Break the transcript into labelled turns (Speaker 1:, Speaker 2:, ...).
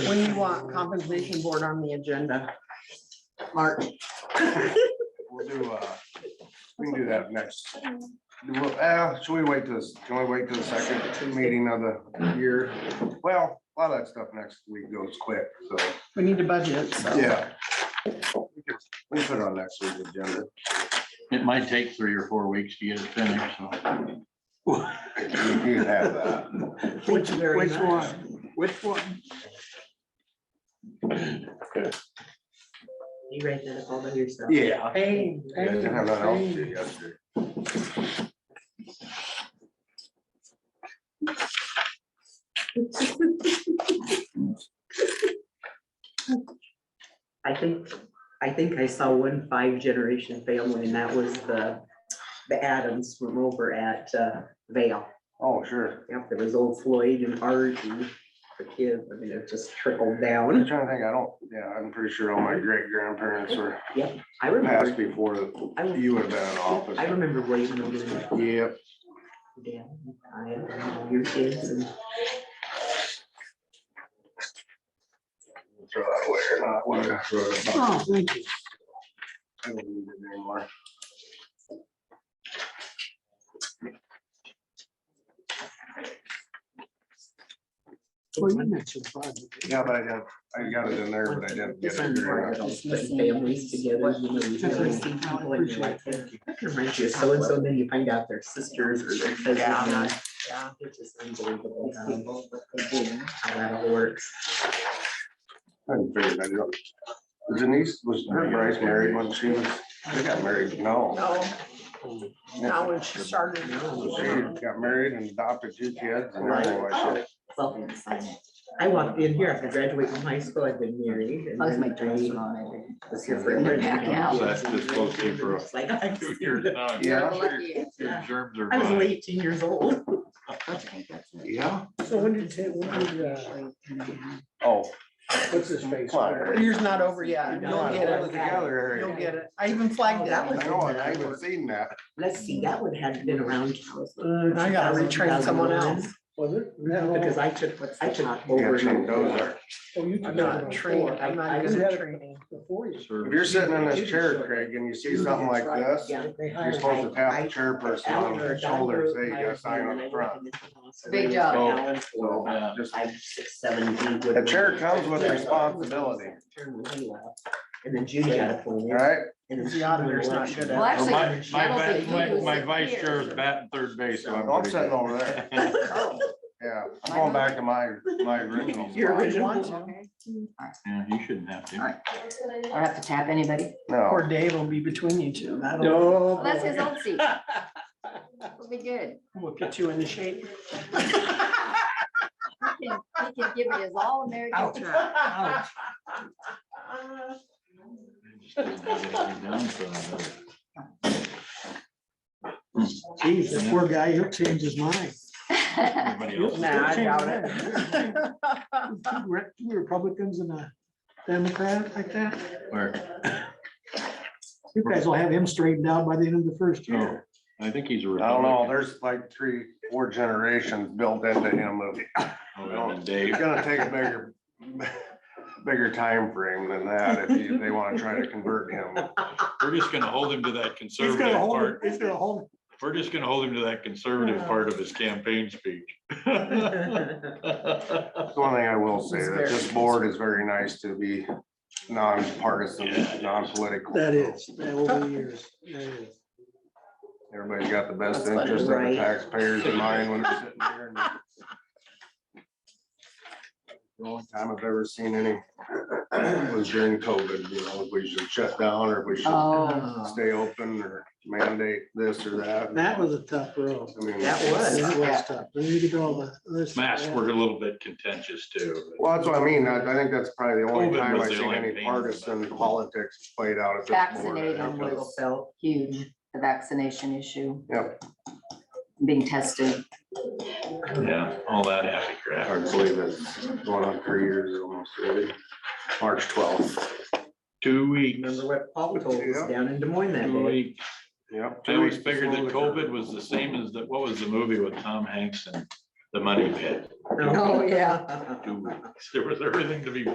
Speaker 1: When you want compensation board on the agenda, Mark,
Speaker 2: We'll do, uh, we can do that next. Well, uh, should we wait till, this- can we wait till the second meeting of the year? Well, a lot of that stuff next week goes quick, so,
Speaker 1: we need a budget, so.
Speaker 2: yeah. We can we can put it on next week's agenda.
Speaker 3: It might take three or four weeks to get it finished, so.
Speaker 2: You can have that.
Speaker 1: Thank you very
Speaker 4: Which
Speaker 1: much.
Speaker 4: one? Which one?
Speaker 5: You write that up all by yourself.
Speaker 2: Yeah.
Speaker 1: Hey,
Speaker 2: Yeah, I
Speaker 1: hey,
Speaker 2: didn't have that out
Speaker 1: hey.
Speaker 2: there yesterday.
Speaker 5: I think, I think I saw one five generation family and that was the, the Adams from over at uh, Vale.
Speaker 2: Oh, sure.
Speaker 5: Yep, there was old Floyd and Argie, the kids, I mean, it just trickled
Speaker 2: I'm
Speaker 5: down.
Speaker 2: trying to think, I don't, yeah, I'm pretty sure all my great grandparents were
Speaker 5: I
Speaker 2: passed
Speaker 5: remember,
Speaker 2: before you would have been in office.
Speaker 5: I remember waiting on them.
Speaker 2: Yep,
Speaker 5: Yeah, I had all your kids and
Speaker 2: throw that away or not, whatever.
Speaker 4: Oh, thank you.
Speaker 2: I don't need it anymore.
Speaker 4: Well, you mentioned five.
Speaker 2: Yeah, but I didn't, I got it in there, but I didn't get
Speaker 5: It's
Speaker 2: it. figured out.
Speaker 5: unfortunate, putting families together, you know, you really see people and you're like, that reminds you of so and so, then you find out they're sisters or their cousins. and
Speaker 1: Yeah.
Speaker 5: It's just unbelievable how- how that all works.
Speaker 2: I didn't figure that out. Denise was, her Bryce married when she was, they got married, no.
Speaker 1: No,
Speaker 2: Yeah.
Speaker 1: now when she started.
Speaker 2: She got married and adopted two kids. and everything like that.
Speaker 5: Well, I walked in here, I graduated from high school, I've been married. and
Speaker 1: Oh,
Speaker 6: I was my
Speaker 5: then
Speaker 6: dresser on, I think.
Speaker 5: Was here forever.
Speaker 6: Yeah.
Speaker 3: So that's just supposed to be for a-
Speaker 5: It's like, I've
Speaker 3: Two
Speaker 5: seen
Speaker 3: years
Speaker 5: it.
Speaker 3: now,
Speaker 2: Yeah.
Speaker 3: your- Your germs are.
Speaker 5: I was
Speaker 3: fine.
Speaker 5: only eighteen years old.
Speaker 6: I think that's it.
Speaker 2: Yeah.
Speaker 4: So when did, you- when did, uh,
Speaker 6: Actually, yeah.
Speaker 2: Oh.
Speaker 4: what's his face?
Speaker 2: Fire.
Speaker 1: Yours not over yet.
Speaker 2: No,
Speaker 1: You'll
Speaker 2: I
Speaker 1: get
Speaker 2: pulled it
Speaker 1: it.
Speaker 2: together, Harry.
Speaker 1: You'll get it. I even flagged that
Speaker 2: I know, and I haven't seen that.
Speaker 5: Let's see, that would have been around.
Speaker 1: one. Uh, I gotta retrain someone else.
Speaker 4: Was it?
Speaker 5: Because I took, I took
Speaker 2: You
Speaker 5: over.
Speaker 2: gotta check those out.
Speaker 4: Oh,
Speaker 1: I'm
Speaker 4: you took that
Speaker 1: not
Speaker 4: one
Speaker 1: trained.
Speaker 4: before.
Speaker 1: I'm not
Speaker 5: I- I
Speaker 1: good
Speaker 4: had
Speaker 1: at
Speaker 4: it.
Speaker 1: training.
Speaker 4: Before you.
Speaker 2: If
Speaker 3: Service.
Speaker 2: you're sitting in this chair, Craig, and you see something like this,
Speaker 4: They
Speaker 2: you're
Speaker 4: hired
Speaker 2: supposed to pat the chairperson on the shoulders, say you got a sign on the front.
Speaker 6: Big job.
Speaker 2: So,
Speaker 3: Yeah.
Speaker 2: just-
Speaker 5: I, six, seven, eight.
Speaker 2: The chair comes with responsibility,
Speaker 5: And then Judy got appointed.
Speaker 2: right?
Speaker 5: and
Speaker 1: The auditor's not good
Speaker 6: Well,
Speaker 1: at
Speaker 3: Well,
Speaker 6: actually,
Speaker 3: My, my,
Speaker 6: I don't
Speaker 3: bat-
Speaker 6: think he
Speaker 3: my,
Speaker 6: was
Speaker 3: my
Speaker 6: here.
Speaker 3: vice chair is batting third base, so I'm.
Speaker 2: I'm
Speaker 3: pretty
Speaker 2: sitting
Speaker 3: good.
Speaker 2: over there. Yeah, I'm going back to Oh. my, my original. spot.
Speaker 5: Your
Speaker 1: it. Want
Speaker 5: original.
Speaker 1: to.
Speaker 6: Okay.
Speaker 3: Yeah, you shouldn't have to.
Speaker 6: I don't have to tap anybody.
Speaker 2: No,
Speaker 1: Poor Dave will be between you two. That'll
Speaker 4: No.
Speaker 6: Well, that's his old seat. It'll be good.
Speaker 1: we'll get you into shape.
Speaker 6: He can- he can give it his all American try.
Speaker 4: Geez, that poor guy, he'll change his mind.
Speaker 3: Everybody else.
Speaker 4: Nah,
Speaker 1: Nah, I doubt
Speaker 4: it. Two re- two Republicans and a Democrat like that.
Speaker 3: Where?
Speaker 4: You guys will have him straightened out by the end of the first
Speaker 3: Oh,
Speaker 4: year.
Speaker 3: I think he's a
Speaker 2: I don't know,
Speaker 3: Republican.
Speaker 2: there's like three, four generations built into him. of-
Speaker 3: Oh, and then
Speaker 2: It's
Speaker 3: Dave,
Speaker 2: gonna take a bigger, bigger time frame than that if you- they wanna try to convert him.
Speaker 3: we're just gonna hold him to that
Speaker 4: He's gonna
Speaker 3: conservative
Speaker 4: hold, it-
Speaker 3: Oh, part.
Speaker 4: he's gonna hold.
Speaker 3: We're just gonna hold him to that conservative part of his campaign speech.
Speaker 2: That's one thing I will say, that this board is very nice to be nonpartisan, non-political.
Speaker 4: That is, that will be yours. That is.
Speaker 2: Everybody's got the best
Speaker 1: That's funny.
Speaker 2: interest of the
Speaker 5: Right.
Speaker 2: taxpayers in mind when they're sitting there. and- The only time I've ever seen any was during COVID, you know, if we should shut down or if we should
Speaker 6: Oh,
Speaker 1: Um,
Speaker 2: stay open or mandate this or that.
Speaker 4: That was a tough road.
Speaker 2: I mean,
Speaker 5: That was.
Speaker 4: That was tough. We need to go all the- this-
Speaker 3: Masks were a little bit contentious too.
Speaker 2: Well, that's what I mean. I, I think that's probably the only
Speaker 3: COVID
Speaker 2: time
Speaker 3: was
Speaker 2: I've
Speaker 3: the
Speaker 2: seen
Speaker 3: only
Speaker 2: any
Speaker 3: pain.
Speaker 2: partisan politics played out at this board. I
Speaker 6: Vaccinating
Speaker 2: think that's-
Speaker 6: was huge, the vaccination issue.
Speaker 2: Yep.
Speaker 6: Being tested.
Speaker 3: Yeah, all that happy crap.
Speaker 2: Hard to believe it's going on three years almost already. March twelfth.
Speaker 3: Two weeks,
Speaker 5: Remember what Paul told us
Speaker 2: Yeah.
Speaker 5: down in Des Moines that
Speaker 3: two
Speaker 5: day?
Speaker 3: weeks.
Speaker 2: Yep.
Speaker 3: I always figured that COVID was the same as that, what was the movie with Tom Hanks and the money pit?
Speaker 5: No.
Speaker 1: Oh, yeah.
Speaker 3: two weeks. There was everything to be